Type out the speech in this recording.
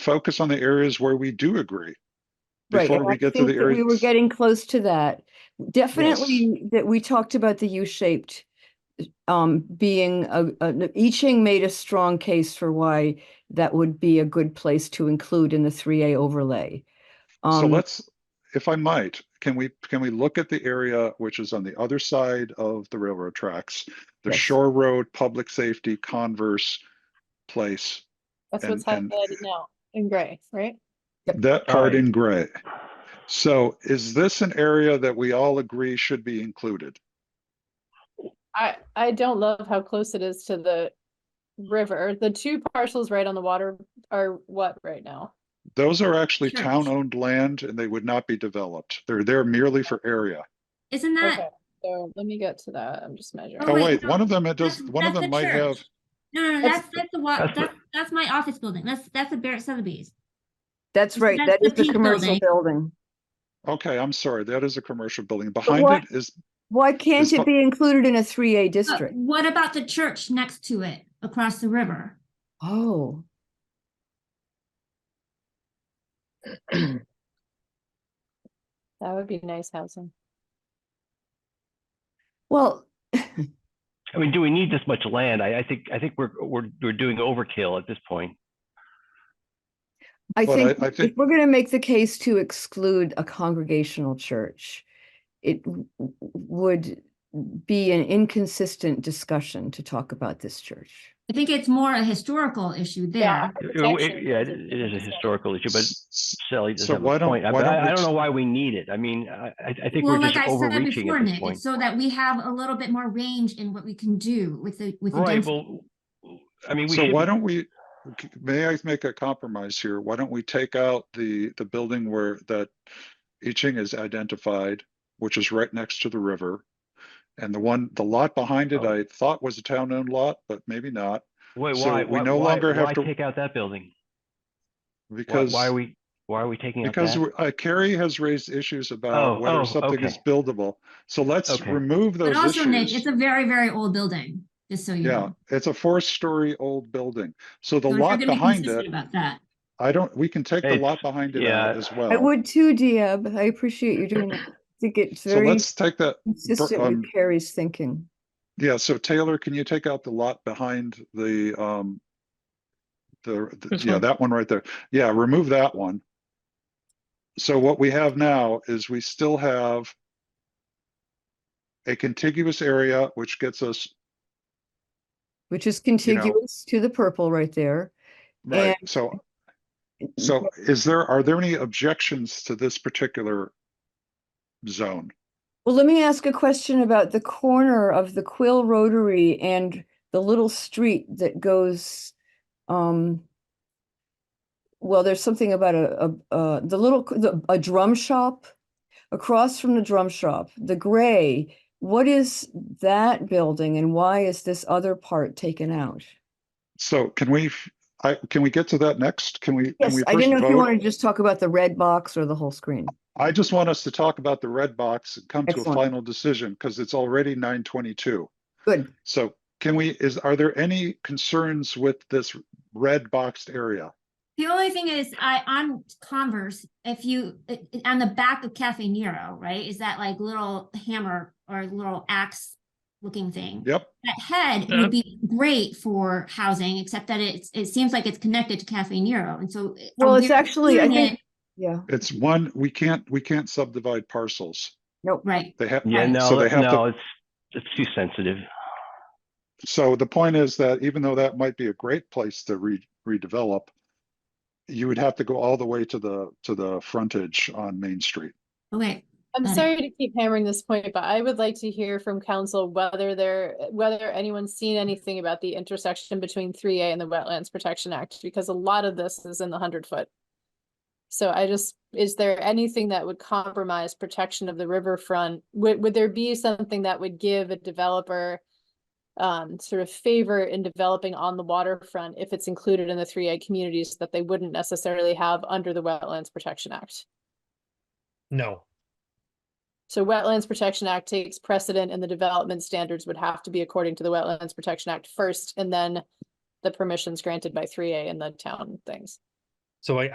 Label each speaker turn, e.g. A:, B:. A: focus on the areas where we do agree.
B: Right,
A: Before
B: and
A: we
B: I
A: get to
B: think
A: the
B: that We were
A: areas.
B: getting close to that. Definitely, that we talked about the U-shaped um, being a, a, I Ching made a strong case for why that would be a good place to include in the three A overlay.
A: So
B: Um,
A: let's, if I might, can we, can we look at the area which is on the other side of the railroad tracks? The
B: Yes.
A: Shore Road, Public Safety, Converse Place,
C: That's
A: And-
C: what's
A: and-
C: highlighted now in gray, right?
A: that part
D: Right.
A: in gray. So is this an area that we all agree should be included?
C: I, I don't love how close it is to the river. The two parcels right on the water are what right now?
A: Those are actually
E: Sure.
A: town-owned land and they would not be developed. They're there merely for area.
E: Isn't
C: Okay,
E: that?
C: so let me get to that. I'm just measuring.
A: Oh,
E: wait,
A: wait, one
E: no,
A: of them, it does,
E: that's-
A: one of
E: that's
A: them
E: the
A: might have,
E: church. No, no, no,
C: That's-
E: that's, that's the wa,
D: that's the-
E: that's, that's my office building. That's, that's the Barrett Sotheby's.
B: that's right,
E: that's
B: that
E: the
B: is the
E: pink
B: commercial
E: building.
B: building.
A: okay, I'm sorry, that is a commercial building. Behind
B: what-
A: it is,
B: Why can't
A: It's
B: it
A: not-
B: be included in a three A
E: But
B: district?
E: What about the church next to it across the river?
B: Oh.
C: That would be nice housing.
B: Well,
D: I mean, do we need this much land? I, I think, I think we're, we're, we're doing overkill at this point.
B: I
A: But I-
B: think
A: I
B: if
A: think-
B: we're gonna make the case to exclude a congregational church, it w- w- would be an inconsistent discussion to talk about this church.
E: I think it's more a historical issue
C: Yeah,
E: there.
D: It-
C: protection
D: it- Yeah,
C: is
D: it
C: a-
D: it is a historical issue, but
A: s-
D: Sally does
A: So
D: have
A: why
D: a
A: don't-
D: point. I-
A: why
D: but
A: don't
D: I,
A: we
D: I don't
A: just-
D: know why we need it. I mean, I, I, I think
E: Well,
D: we're
E: like
D: just
E: I said
D: overreaching
E: before,
D: at this
E: Nick, it's
D: point.
E: so that we have a little bit more range in what we can do with the, with the
D: Right,
E: density.
D: well, I mean, we
A: So why
D: should,
A: don't we, c- may I make a compromise here? Why don't we take out the, the building where that I Ching is identified, which is right next to the river? And the one, the lot behind it,
D: Oh.
A: I thought was a town-owned lot, but maybe not,
D: wait,
A: so
D: why,
A: we
D: why,
A: no
D: why,
A: longer have
D: why
A: to-
D: take out that building? Why,
A: because,
D: why are we, why are we taking out
A: because
D: that?
A: we- uh, Carrie has raised issues
D: Oh,
A: about
D: oh,
A: whether something is
D: okay.
A: buildable. So let's
D: Okay.
A: remove
E: But
A: those
E: also, Nick,
A: issues.
E: it's a very, very old building, just so you
A: Yeah,
E: know.
A: it's a four-story old building. So the
E: So if you're
A: lot
E: gonna be
A: behind
E: consistent
A: it,
E: About that.
A: I don't, we can take the
D: It's-
A: lot behind it
D: yeah,
A: out as well.
B: I would too, Diab. I appreciate you doing that. I think it's
A: So
B: very
A: let's take that,
B: consistent
A: um,
B: with Carrie's thinking.
A: Yeah, so Taylor, can you take out the lot behind the, um, the, the-
F: This
A: yeah,
F: one?
A: that one right there. Yeah, remove that one. So what we have now is we still have a contiguous area, which gets us,
B: Which is contiguous to the purple right there.
A: right, so, so is there, are there any objections to this particular zone?
B: Well, let me ask a question about the corner of the Quill Rotary and the little street that goes, um, well, there's something about a, a, uh, the little, c- the, a drum shop. Across from the drum shop, the gray, what is that building and why is this other part taken out?
A: So can we, f- I, can we get to that next? Can we? can
B: Yes,
A: we
B: I
A: first
B: didn't know if you
A: vote?
B: wanted to just talk about the red box or the whole screen.
A: I just want us to talk about the red box and come to a
B: Excellent.
A: final decision because it's already nine twenty-two.
B: Good.
A: So can we, is, are there any concerns with this red boxed area?
E: The only thing is, I, on Converse, if you, i- i- on the back of Cafe Nero, right, is that like little hammer or little axe looking thing?
A: Yep,
E: That head
F: Yeah.
E: would be great for housing, except that it's, it seems like it's connected to Cafe Nero, and so. it-
A: Um,
B: Well, it's
E: we're
B: actually, I
E: doing
B: think,
E: it-
B: yeah,
A: it's one, we can't, we can't subdivide parcels.
B: nope.
E: Right,
A: They have,
D: Yeah,
E: Right.
A: So
D: no,
A: they have to-
D: no, it's, it's too sensitive.
A: so the point is that even though that might be a great place to re- redevelop, you would have to go all the way to the, to the frontage on Main Street.
E: okay,
C: I'm
E: Got it.
C: sorry to keep hammering this point, but I would like to hear from council whether there, whether anyone's seen anything about the intersection between three A and the Wetlands Protection Act, because a lot of this is in the hundred foot. So I just, is there anything that would compromise protection of the riverfront? Would, would there be something that would give a developer um, sort of favor in developing on the waterfront if it's included in the three A communities that they wouldn't necessarily have under the Wetlands Protection Act?
F: No,
C: So Wetlands Protection Act takes precedent and the development standards would have to be according to the Wetlands Protection Act first and then the permissions granted by three A and the town things.
F: So I,